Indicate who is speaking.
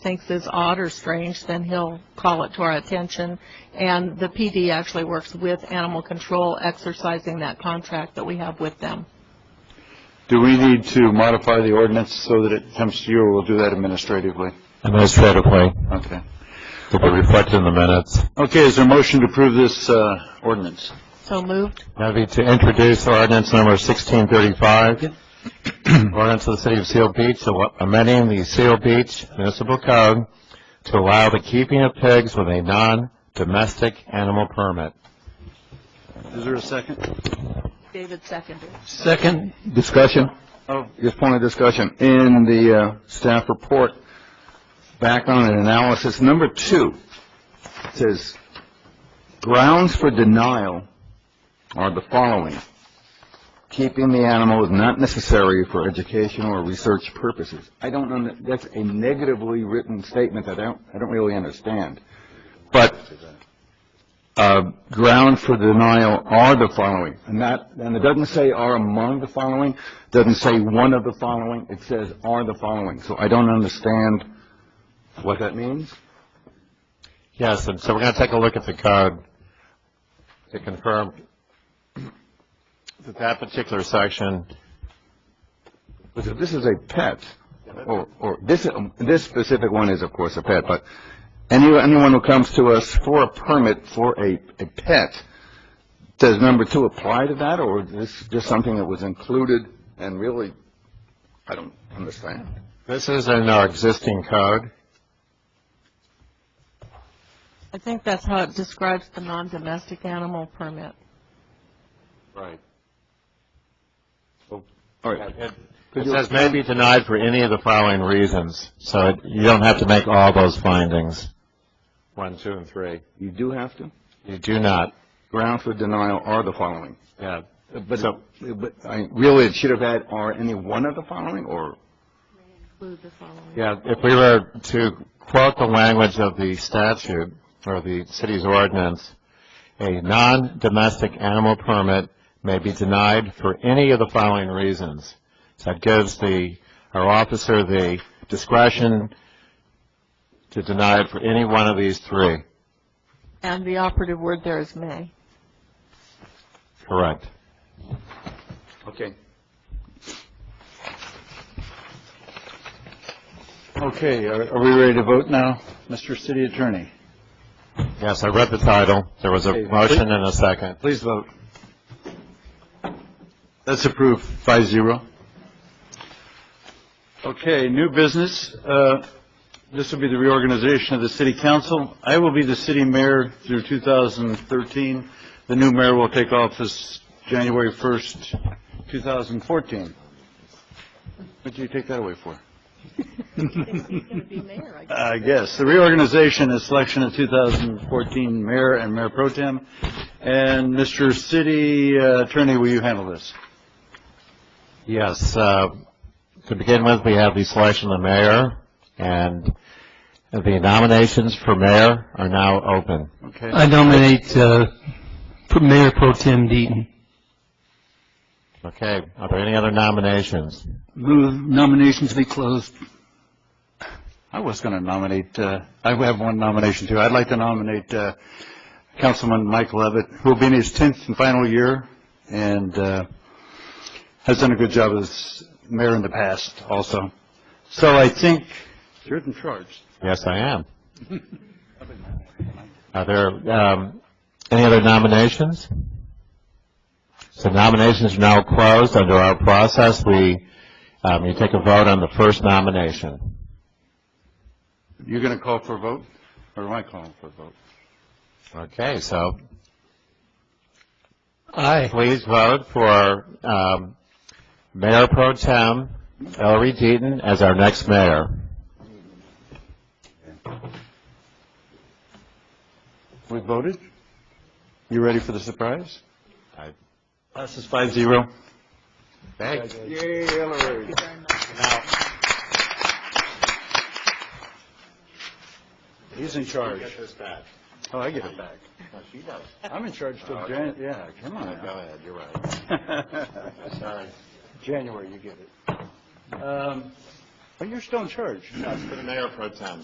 Speaker 1: thinks is odd or strange, then he'll call it to our attention. And the PD actually works with animal control, exercising that contract that we have with them.
Speaker 2: Do we need to modify the ordinance so that it comes to you, or we'll do that administratively?
Speaker 3: administratively,
Speaker 2: Okay.
Speaker 3: to be reflected in the minutes.
Speaker 2: Okay, is there a motion to approve this uh, ordinance?
Speaker 1: So moved?
Speaker 3: That'd be to introduce ordinance number 1635, ordinance of the City of Seal Beach, awa- amending the Seal Beach Municipal Code to allow the keeping of pigs with a non-domestic animal permit.
Speaker 2: Is there a second?
Speaker 1: David seconded.
Speaker 4: Second discussion,
Speaker 2: Oh,
Speaker 4: just point of discussion, in the uh, staff report, background and analysis, number two, it says, grounds for denial are the following. Keeping the animal is not necessary for educational or research purposes. I don't, know. that's a negatively written statement that I don't, I don't really understand. But uh, ground for denial are the following, and that, and it doesn't say are among the following, doesn't say one of the following, it says are the following, so I don't understand what that means.
Speaker 3: Yes, and so we're going to take a look at the code to confirm that that particular section,
Speaker 4: Because if this is a pet, or, or, this, this specific one is, of course, a pet, but any, anyone who comes to us for a permit for a, a pet, does number two apply to that, or is this just something that was included and really, I don't understand.
Speaker 3: this is in our existing code.
Speaker 1: I think that's how it describes the non-domestic animal permit.
Speaker 3: Right.
Speaker 4: All right,
Speaker 3: It
Speaker 4: Could
Speaker 3: it
Speaker 4: you-
Speaker 3: says may be denied for any of the following reasons, so it- you don't have to make all those findings. One, two, and three.
Speaker 4: you do have to?
Speaker 3: You do not,
Speaker 4: grounds for denial are the following.
Speaker 3: yeah.
Speaker 4: But,
Speaker 3: So-
Speaker 4: but, I, really, it should have had, are any one of the following, or?
Speaker 1: Include the following.
Speaker 3: Yeah, if we were to quote the language of the statute or the city's ordinance, a non-domestic animal permit may be denied for any of the following reasons. So it gives the, our officer the discretion to deny it for any one of these three.
Speaker 1: And the operative word there is may.
Speaker 3: Correct.
Speaker 4: Okay.
Speaker 2: Okay, are are we ready to vote now, Mr. City Attorney?
Speaker 3: Yes, I read the title. There was a
Speaker 2: Okay.
Speaker 3: motion and a second.
Speaker 2: Please vote. That's approved, five zero. Okay, new business. Uh, This will be the reorganization of the city council. I will be the city mayor through 2013. The new mayor will take office January 1st, 2014. What'd you take that away for? I guess. The reorganization and selection of 2014 mayor and mayor pro tem. And Mr. City uh, Attorney, will you handle this?
Speaker 3: Yes, uh, to begin with, we have the selection of the mayor, and the nominations for mayor are now open.
Speaker 2: Okay.
Speaker 5: I nominate uh, Mayor Pro Tem Deaton.
Speaker 3: Okay, are there any other nominations?
Speaker 5: Move nominations be closed.
Speaker 2: I was going to nominate, uh, I have one nomination too. I'd like to nominate uh, Councilman Mike Levitt, who will be in his 10th and final year and uh, has done a good job as mayor in the past also. So I think you're in charge.
Speaker 3: Yes, I am. Are there um, any other nominations? So nominations are now closed. Under our process, we, um, you take a vote on the first nomination.
Speaker 2: You're going to call for a vote? Or am I calling for a vote?
Speaker 3: Okay, so
Speaker 5: Aye.
Speaker 3: please vote for um, Mayor Pro Tem Ellery Deaton as our next mayor.
Speaker 2: We voted? You ready for the surprise?
Speaker 3: Aye.
Speaker 2: This is five zero.
Speaker 3: Thanks.
Speaker 2: He's in charge. Oh, I get it back. I'm in charge till Jan, yeah, come on.
Speaker 3: Go ahead, you're right.
Speaker 2: now.
Speaker 3: Sorry.
Speaker 2: January, you get it. Um, But you're still in charge.
Speaker 3: That's for the Mayor Pro Tem.